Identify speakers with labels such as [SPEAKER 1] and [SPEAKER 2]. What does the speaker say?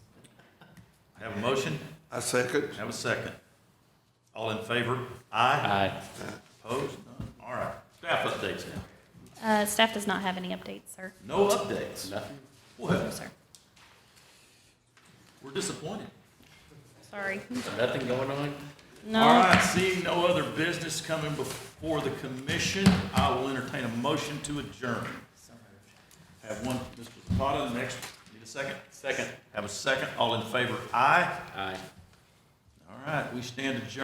[SPEAKER 1] Have a motion,
[SPEAKER 2] I second.
[SPEAKER 1] have a second. All in favor? Aye.
[SPEAKER 3] Aye.
[SPEAKER 1] Opposed? None. All right. Staff updates now.
[SPEAKER 4] Uh, Staff does not have any updates, sir.
[SPEAKER 1] No updates.
[SPEAKER 3] Nothing.
[SPEAKER 4] No,
[SPEAKER 1] Well,
[SPEAKER 4] sir.
[SPEAKER 1] we're disappointed.
[SPEAKER 4] Sorry.
[SPEAKER 3] Nothing going on?
[SPEAKER 1] All
[SPEAKER 4] No.
[SPEAKER 1] right, seeing no other business coming before the commission, I will entertain a motion to adjourn. Have one, Mr. Zapata, the next, need a second?
[SPEAKER 3] Second.
[SPEAKER 1] Have a second, all in favor, aye.
[SPEAKER 3] Aye.
[SPEAKER 1] All right, we stand adjourned.